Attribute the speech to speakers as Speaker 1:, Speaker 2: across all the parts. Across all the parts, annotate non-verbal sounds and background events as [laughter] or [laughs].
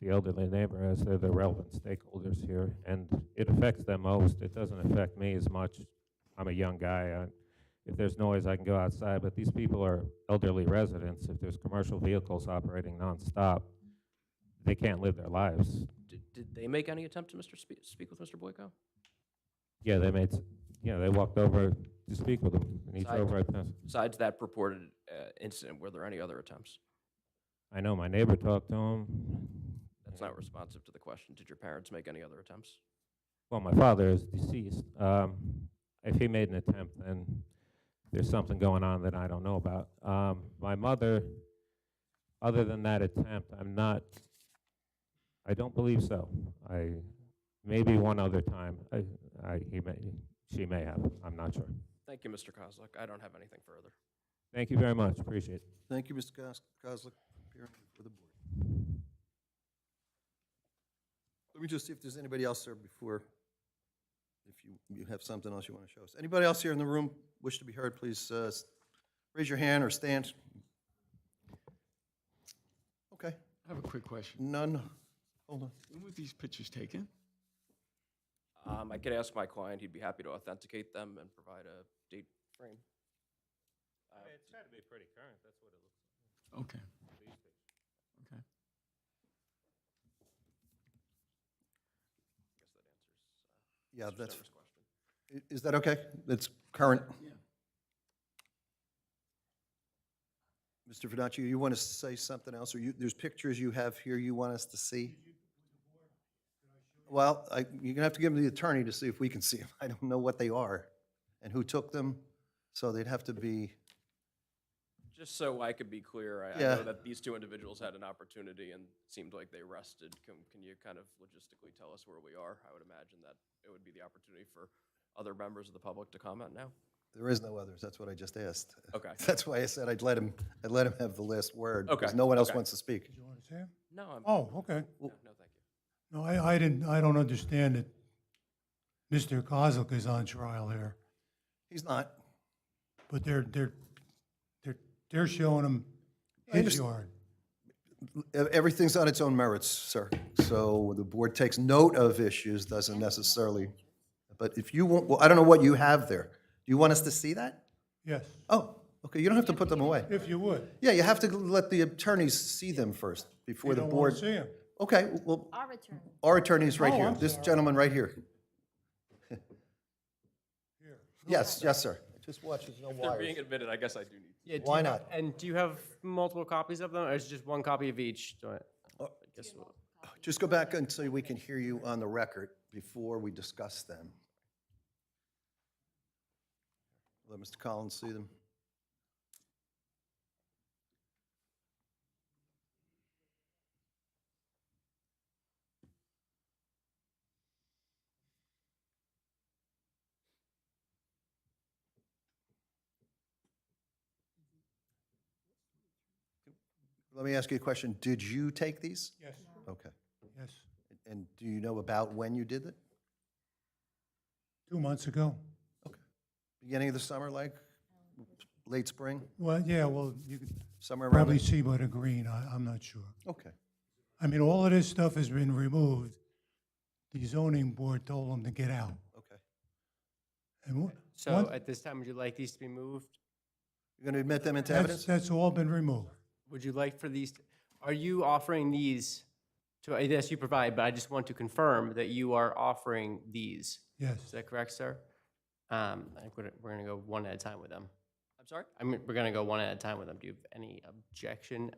Speaker 1: the elderly neighbor, as they're the relevant stakeholders here, and it affects them most. It doesn't affect me as much. I'm a young guy. I- If there's noise, I can go outside, but these people are elderly residents. If there's commercial vehicles operating nonstop, they can't live their lives.
Speaker 2: Did, did they make any attempt to Mr. Speak, speak with Mr. Boyko?
Speaker 1: Yeah, they made, s- yeah, they walked over to speak with him, and he
Speaker 2: Side-
Speaker 1: drove right past.
Speaker 2: Besides that purported uh, incident, were there any other attempts?
Speaker 1: I know my neighbor talked to him.
Speaker 2: That's not responsive to the question. Did your parents make any other attempts?
Speaker 1: Well, my father is deceased. Um, if he made an attempt, then there's something going on that I don't know about. Um, my mother, other than that attempt, I'm not, I don't believe so. I, maybe one other time, I, I, he may, she may have, I'm not sure.
Speaker 2: Thank you, Mr. Kozlik. I don't have anything further.
Speaker 1: Thank you very much, appreciate it.
Speaker 3: Thank you, Mr. Kos- Kozlik, for appearing before the board. Let me just see if there's anybody else there before, if you, you have something else you want to show us. Anybody else here in the room wish to be heard, please uh, s- raise your hand or stand. Okay,
Speaker 4: I have a quick question.
Speaker 3: none, hold on.
Speaker 4: When were these pictures taken?
Speaker 2: Um, I could ask my client. He'd be happy to authenticate them and provide a date frame.
Speaker 1: It's got to be pretty current, that's what it looks
Speaker 4: Okay. Okay.
Speaker 3: Yeah, that's,
Speaker 2: Senator's question.
Speaker 3: i- is that okay? That's current?
Speaker 4: Yeah.
Speaker 3: Mr. Fidancio, you want to say something else, or you, there's pictures you have here you want us to see? Well, I, you're gonna have to give them to the attorney to see if we can see them. [laughs] I don't know what they are and who took them, so they'd have to be,
Speaker 2: Just so I could be clear, I, I
Speaker 3: Yeah.
Speaker 2: know that these two individuals had an opportunity and seemed like they rested. Can, can you kind of logistically tell us where we are? I would imagine that it would be the opportunity for other members of the public to comment now.
Speaker 3: there is no others, that's what I just asked.
Speaker 2: Okay.
Speaker 3: [laughs] That's why I said I'd let him, I'd let him have the last word. because
Speaker 2: Okay,
Speaker 3: No one else
Speaker 2: okay.
Speaker 3: wants to speak.
Speaker 5: You understand?
Speaker 2: No, I'm, no,
Speaker 5: Oh, okay.
Speaker 2: no, thank you.
Speaker 5: No, I, I didn't, I don't understand that Mr. Kozlik is on trial here,
Speaker 3: He's not.
Speaker 5: but they're, they're, they're, they're showing him
Speaker 3: I
Speaker 5: his
Speaker 3: underst-
Speaker 5: yard.
Speaker 3: Ev- Everything's on its own merits, sir. So the board takes note of issues, doesn't necessarily, but if you want, well, I don't know what you have there. Do you want us to see that?
Speaker 5: Yes,
Speaker 3: Oh, okay, you don't have to put them away.
Speaker 5: if you would.
Speaker 3: Yeah, you have to let the attorneys see them first before
Speaker 5: You
Speaker 3: the
Speaker 5: don't want
Speaker 3: board.
Speaker 5: to see him.
Speaker 3: Okay, well,
Speaker 6: Our attorney.
Speaker 3: our attorney's right
Speaker 5: Oh,
Speaker 3: here,
Speaker 5: I'm
Speaker 3: this
Speaker 5: sorry.
Speaker 3: gentleman right here.
Speaker 5: Here.
Speaker 3: [laughs] Yes, yes, sir. Just watch, there's no
Speaker 2: They're being
Speaker 3: wires.
Speaker 2: admitted, I guess I do need.
Speaker 7: Yeah, do
Speaker 3: Why
Speaker 7: you-
Speaker 3: not?
Speaker 7: And do you have multiple copies of them, or is it just one copy of each? Do I- I guess we'll-
Speaker 3: Just go back until we can hear you on the record before we discuss them. Let Mr. Collins see them. Let me ask you a question. Did you take these?
Speaker 5: Yes,
Speaker 3: Okay.
Speaker 5: yes.
Speaker 3: And do you know about when you did it?
Speaker 5: Two months ago.
Speaker 3: Beginning of the summer, like, late spring,
Speaker 5: Well, yeah, well, you could
Speaker 3: somewhere around?
Speaker 5: probably
Speaker 3: there?
Speaker 5: see by the green, I, I'm not sure.
Speaker 3: Okay,
Speaker 5: I mean, all of this stuff has been removed. The zoning board told them to get out.
Speaker 3: okay.
Speaker 5: And wha-
Speaker 7: So
Speaker 3: uh,
Speaker 5: once-
Speaker 7: at this time, would you like these to be moved?
Speaker 3: You're going to admit them into
Speaker 5: that's,
Speaker 3: evidence?
Speaker 5: that's all been removed.
Speaker 7: Would you like for these, are you offering these to, I guess you provide, but I just want to confirm that you are offering these.
Speaker 5: Yes.
Speaker 7: Is that correct, sir? Um, I think we're, we're gonna go one at a time with them.
Speaker 2: I'm sorry?
Speaker 7: I mean, we're gonna go one at a time with them. Do you have any objection?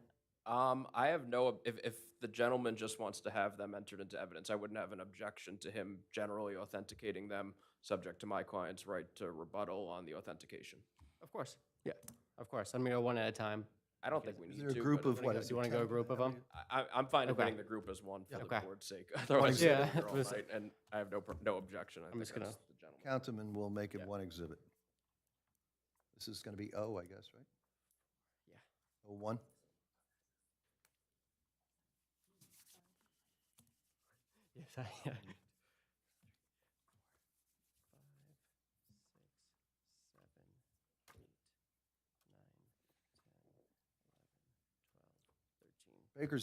Speaker 2: Um, I have no, ob- if, if the gentleman just wants to have them entered into evidence, I wouldn't have an objection to him generally authenticating them, subject to my client's right to rebuttal on the authentication.
Speaker 7: Of course. Yeah, of course. I'm gonna go one at a time.
Speaker 2: I don't think we
Speaker 3: Is
Speaker 2: need to.
Speaker 3: there a group
Speaker 2: but
Speaker 3: of what?
Speaker 7: Do you wanna go a group of them?
Speaker 2: I, I- I'm fine
Speaker 7: Okay.
Speaker 2: opening the group as one for the
Speaker 7: Okay.
Speaker 2: board's sake.
Speaker 7: [laughs]
Speaker 2: Otherwise,
Speaker 7: Yeah,
Speaker 2: yeah,
Speaker 7: that's [laughs] what I said.
Speaker 2: right, and I have no, pro- no objection. I think
Speaker 7: just gonna-
Speaker 2: that's the gentleman.
Speaker 3: Count them and we'll make it one exhibit. This is going to be O, I guess, right? Yeah. O one?
Speaker 7: Yes, I
Speaker 3: Baker's